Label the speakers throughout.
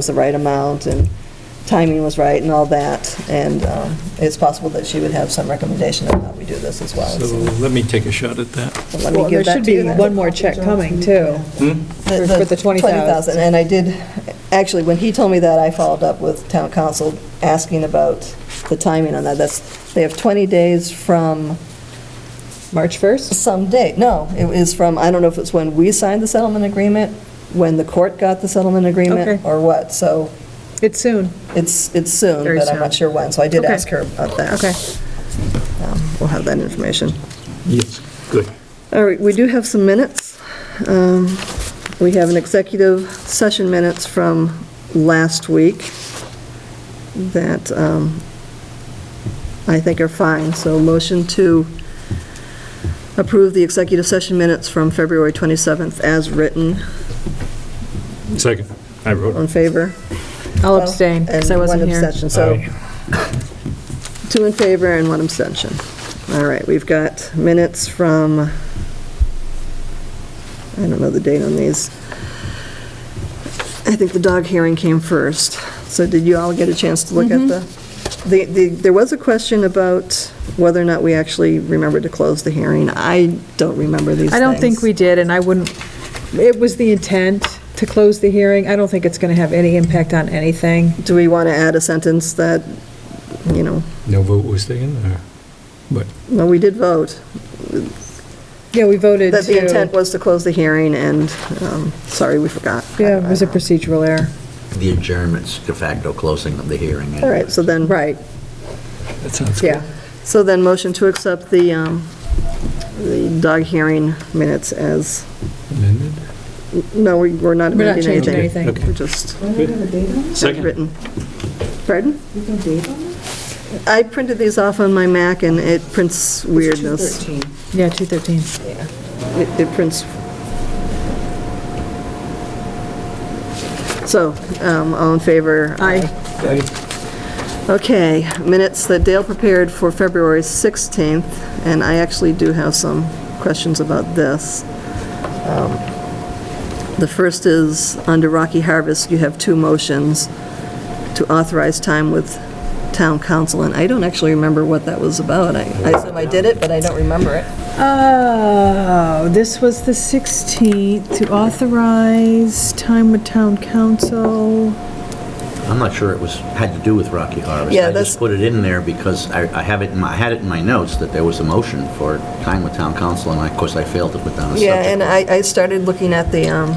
Speaker 1: was the right amount and timing was right and all that. And um, it's possible that she would have some recommendation on how we do this as well.
Speaker 2: So let me take a shot at that.
Speaker 1: So let me
Speaker 3: Well,
Speaker 1: give
Speaker 3: there
Speaker 1: that
Speaker 3: should
Speaker 1: to
Speaker 3: be
Speaker 1: you.
Speaker 3: one more check coming, too. for the 20,000.
Speaker 1: And I did, actually, when he told me that, I followed up with town council asking about the timing on that. That's, they have 20 days from
Speaker 3: March 1st?
Speaker 1: some date. No, it was from, I don't know if it's when we signed the settlement agreement, when the court got the settlement agreement,
Speaker 3: Okay.
Speaker 1: or what. So
Speaker 3: It's soon.
Speaker 1: it's, it's soon,
Speaker 3: Very
Speaker 1: but I'm not
Speaker 3: soon.
Speaker 1: sure when. So I did
Speaker 3: Okay.
Speaker 1: ask her about that.
Speaker 3: Okay.
Speaker 1: Um, We'll have that information.
Speaker 2: Yes, good.
Speaker 1: All right, we do have some minutes. Um, We have an executive session minutes from last week that um, I think are fine, so motion to approve the executive session minutes from February 27th as written,
Speaker 2: Second, I wrote.
Speaker 1: on favor?
Speaker 3: I'll Oh, abstain, because I wasn't
Speaker 1: And one
Speaker 3: here.
Speaker 1: abstention, so
Speaker 2: Aye.
Speaker 1: two in favor and one abstention. All right, we've got minutes from, I don't know the date on these. I think the dog hearing came first. So did you all get a chance to look at the,
Speaker 3: Mm-hmm.
Speaker 1: the- the, there was a question about whether or not we actually remembered to close the hearing. I don't remember these things.
Speaker 3: I don't think we did, and I wouldn't, it was the intent to close the hearing. I don't think it's going to have any impact on anything.
Speaker 1: Do we want to add a sentence that, you know,
Speaker 2: No vote was taken, or what?
Speaker 1: no, we did vote.
Speaker 3: Yeah, we voted
Speaker 1: That the intent
Speaker 3: to,
Speaker 1: was to close the hearing, and, um, sorry, we forgot.
Speaker 3: yeah, it was a procedural error.
Speaker 4: The adjournment's de facto closing of the hearing.
Speaker 1: All right, so then,
Speaker 3: Right,
Speaker 2: That sounds good.
Speaker 3: yeah.
Speaker 1: so then motion to accept the, um, the dog hearing minutes as,
Speaker 2: Amended?
Speaker 1: no, we- we're not
Speaker 3: We're not
Speaker 1: amending
Speaker 3: changing
Speaker 1: anything.
Speaker 3: anything.
Speaker 2: Okay.
Speaker 1: We're just
Speaker 2: Second,
Speaker 1: written. Pardon? I printed these off on my Mac, and it prints weirdness.
Speaker 3: Yeah, 213.
Speaker 1: It it prints. So, um, all in favor?
Speaker 3: Aye.
Speaker 1: Okay, minutes that Dale prepared for February 16th, and I actually do have some questions about this. Um, The first is, under Rocky Harvest, you have two motions to authorize time with town council, and I don't actually remember what that was about. I I assume I did it, but I don't remember it.
Speaker 3: Oh, this was the 16th, to authorize time with town council.
Speaker 4: I'm not sure it was, had to do with Rocky Harvest.
Speaker 1: Yeah,
Speaker 4: I
Speaker 1: that's-
Speaker 4: just put it in there because I I have it, in my- I had it in my notes that there was a motion for time with town council, and I- of course, I failed to put down a subject.
Speaker 1: Yeah, and I I started looking at the um,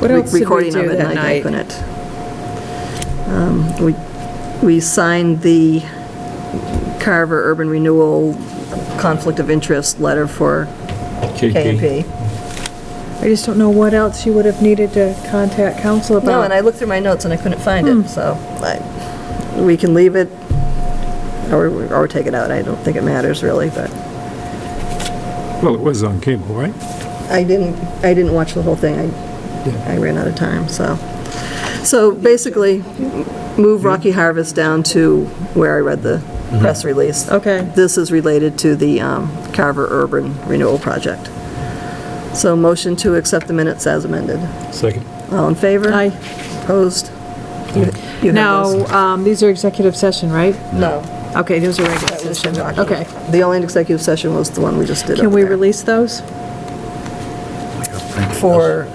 Speaker 3: What else did we
Speaker 1: recording of
Speaker 3: do
Speaker 1: it,
Speaker 3: that
Speaker 1: and I
Speaker 3: night?
Speaker 1: couldn't. Um, We we signed the Carver Urban Renewal Conflict of Interest letter for
Speaker 2: KP.
Speaker 1: KMP.
Speaker 3: I just don't know what else you would have needed to contact council about.
Speaker 1: No, and I looked through my notes and I couldn't find it, so I- we can leave it or or take it out. I don't think it matters really, but
Speaker 2: Well, it was on cable, right?
Speaker 1: I didn't, I didn't watch the whole thing. I I ran out of time, so. So basically, move Rocky Harvest down to where I read the
Speaker 2: Mm-hmm.
Speaker 1: press release.
Speaker 3: Okay,
Speaker 1: This is related to the um, Carver Urban Renewal Project. So motion to accept the minutes as amended.
Speaker 2: Second.
Speaker 1: All in favor?
Speaker 3: aye.
Speaker 1: Opposed? You- you have
Speaker 3: Now,
Speaker 1: those?
Speaker 3: um, these are executive session, right?
Speaker 1: No.
Speaker 3: Okay, those are regular
Speaker 1: That was
Speaker 3: session.
Speaker 1: from Rocky.
Speaker 3: Okay.
Speaker 1: The only executive session was the one we just did
Speaker 3: Can
Speaker 1: over
Speaker 3: we
Speaker 1: there.
Speaker 3: release those?
Speaker 1: For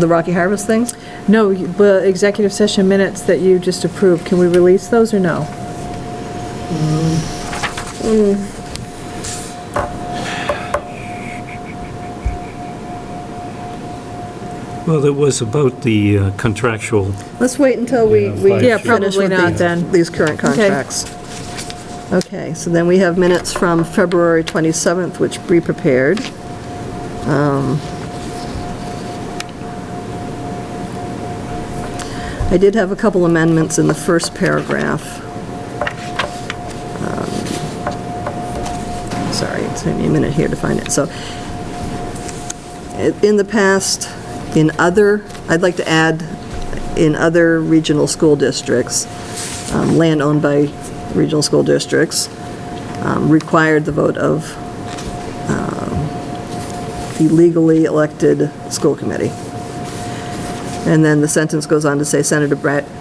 Speaker 1: the Rocky Harvest thing?
Speaker 3: No, you- the executive session minutes that you just approved, can we release those or no?
Speaker 2: Well, it was about the uh, contractual,
Speaker 1: Let's wait until we,
Speaker 2: Yeah,
Speaker 1: we
Speaker 2: five
Speaker 3: Yeah,
Speaker 1: finish
Speaker 3: probably
Speaker 1: with
Speaker 3: not
Speaker 1: the-
Speaker 3: then.
Speaker 1: these current contracts. Okay, so then we have minutes from February 27th, which Bree prepared. Um, I did have a couple amendments in the first paragraph. Um, Sorry, it took me a minute here to find it. So in the past, in other, I'd like to add, in other regional school districts, um, land owned by regional school districts, um, required the vote of um, the legally elected school committee. And then the sentence goes on to say Senator Brad